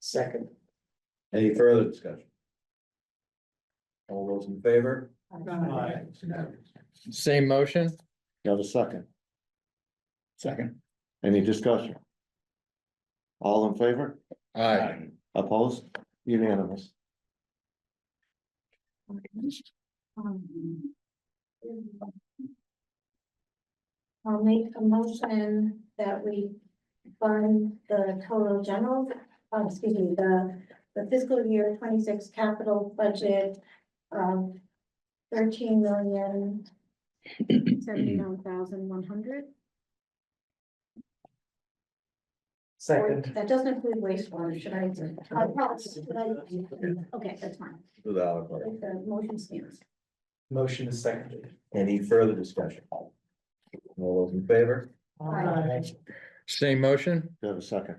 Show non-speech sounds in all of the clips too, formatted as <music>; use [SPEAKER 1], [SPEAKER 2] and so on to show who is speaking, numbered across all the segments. [SPEAKER 1] Second.
[SPEAKER 2] Any further discussion? All those in favor?
[SPEAKER 1] Aye.
[SPEAKER 2] It's unanimous.
[SPEAKER 3] Same motion?
[SPEAKER 4] You have a second.
[SPEAKER 1] Second.
[SPEAKER 4] Any discussion? All in favor? Opposed? Unanimous.
[SPEAKER 5] I'll make a motion that we fund the total general, uh, excuse me, the, the fiscal year twenty-six capital budget of thirteen million seventy-nine thousand one hundred.
[SPEAKER 1] Second.
[SPEAKER 5] That doesn't include wastewater, should I? uh, yes, should I- Okay, that's fine.
[SPEAKER 2] Without a vote.
[SPEAKER 5] If The motion stands.
[SPEAKER 1] Motion is seconded.
[SPEAKER 2] Any further discussion? All those in favor?
[SPEAKER 5] Aye.
[SPEAKER 3] Same motion?
[SPEAKER 4] You have a second.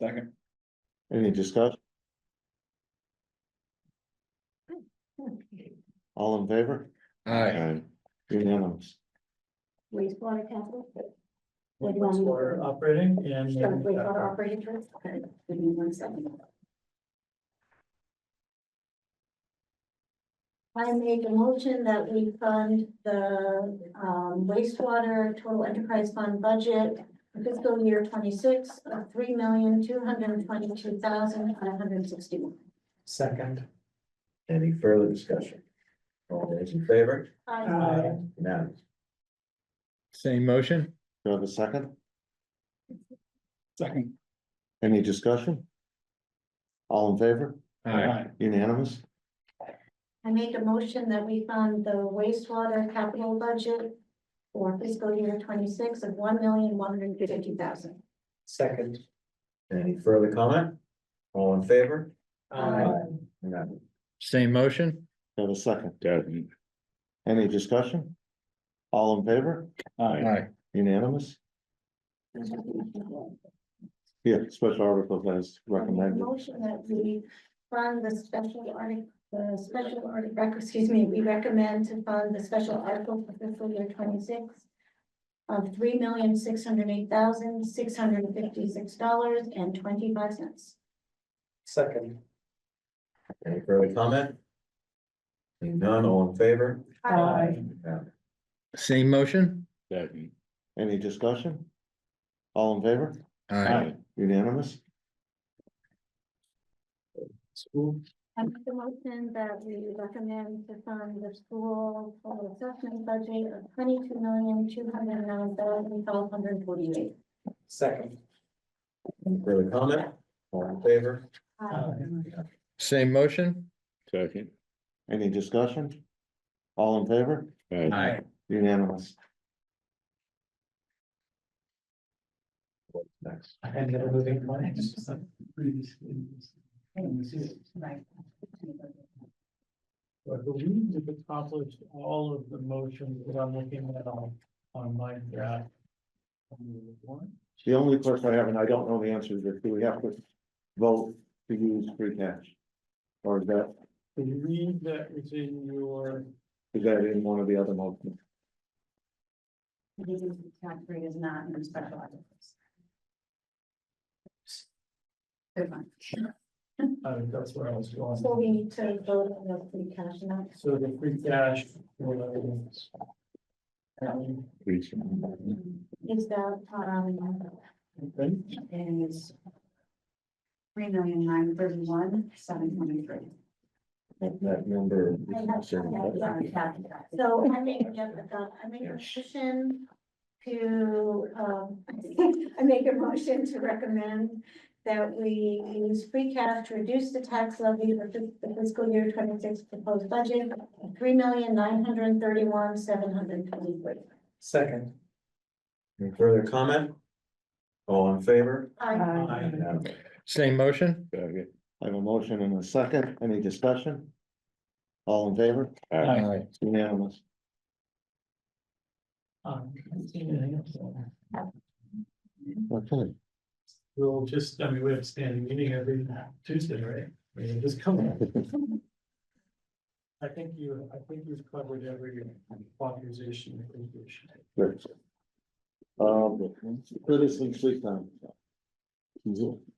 [SPEAKER 2] Second.
[SPEAKER 4] Any discussion? All in favor?
[SPEAKER 3] Aye.
[SPEAKER 4] Unanimous.
[SPEAKER 5] Wastewater capital?
[SPEAKER 1] Wastewater operating and. uh,
[SPEAKER 5] Sure, wastewater operating trust, okay, give me one second. I make a motion that we fund the um, wastewater total enterprise fund budget for fiscal year twenty-six of three million, two hundred and twenty-two thousand, five hundred and sixty-one.
[SPEAKER 1] Second.
[SPEAKER 2] Any further discussion? All those in favor?
[SPEAKER 1] Aye.
[SPEAKER 2] Unanimous.
[SPEAKER 3] Same motion?
[SPEAKER 4] You have a second?
[SPEAKER 1] Second.
[SPEAKER 4] Any discussion? All in favor? Unanimous?
[SPEAKER 5] I make a motion that we fund the wastewater capital budget for fiscal year twenty-six of one million, one hundred and fifty thousand.
[SPEAKER 1] Second.
[SPEAKER 2] Any further comment? All in favor?
[SPEAKER 1] Aye.
[SPEAKER 2] Unanimous.
[SPEAKER 3] Same motion?
[SPEAKER 4] You have a second? Any discussion? All in favor?
[SPEAKER 3] Aye.
[SPEAKER 4] Unanimous? Yeah, special articles as
[SPEAKER 5] I make a
[SPEAKER 4] recommended.
[SPEAKER 5] Motion that we fund the special article, the special article, excuse me, we recommend to fund the special article for fiscal year twenty-six of three million, six hundred eight thousand, six hundred fifty-six dollars and twenty-five cents.
[SPEAKER 1] Second.
[SPEAKER 2] Any further comment? Seeing None, all in favor? Unanimous.
[SPEAKER 3] Same motion?
[SPEAKER 4] Any discussion? All in favor?
[SPEAKER 3] Aye.
[SPEAKER 4] Unanimous?
[SPEAKER 1] School.
[SPEAKER 5] I make the motion that we recommend to fund the school total assessment budget of twenty-two million, two hundred nine thousand, five hundred forty-eight.
[SPEAKER 1] Second.
[SPEAKER 2] Any further comment? All in favor?
[SPEAKER 3] Same motion?
[SPEAKER 6] Second.
[SPEAKER 4] Any discussion? All in favor?
[SPEAKER 1] Aye.
[SPEAKER 4] Unanimous?
[SPEAKER 2] Next.
[SPEAKER 1] And the moving plans. I believe we've accomplished all of the motions that I'm looking at on, on my graph.
[SPEAKER 4] The only question I have, and I don't know the answer, is do we have to vote to use free cash? Or is that,
[SPEAKER 1] Believe that was in your,
[SPEAKER 4] is that in one of the other motions?
[SPEAKER 5] The tax rate is not in the special articles. Good one.
[SPEAKER 1] uh, that's where I was going.
[SPEAKER 5] So we need to vote on the free cash amount.
[SPEAKER 1] So the free cash. was, um,
[SPEAKER 5] Is that, um,
[SPEAKER 1] okay.
[SPEAKER 5] is three million nine thirty-one, seven twenty-three.
[SPEAKER 4] That- That number.
[SPEAKER 5] So I make, yeah, uh, I make a motion to, um, I make a motion to recommend that we use free cash to reduce the tax levy for fis- the fiscal year twenty-six proposed budget of three million nine hundred and thirty-one, seven hundred and twenty-three.
[SPEAKER 1] Second.
[SPEAKER 2] Any further comment? All in favor?
[SPEAKER 5] I,
[SPEAKER 2] Unanimous.
[SPEAKER 3] Same motion?
[SPEAKER 6] Second.
[SPEAKER 4] I have a motion and a second. Any discussion? All in favor?
[SPEAKER 1] Aye.
[SPEAKER 4] Unanimous?
[SPEAKER 1] Um, anything else?
[SPEAKER 4] Okay.
[SPEAKER 1] We'll just, I mean, we have a standing meeting every Tuesday, right? I mean, just come.
[SPEAKER 2] <laughs>
[SPEAKER 1] I think you, I think you've covered every authorization. and condition.
[SPEAKER 4] Uh, Good. Um, citizens sleep time.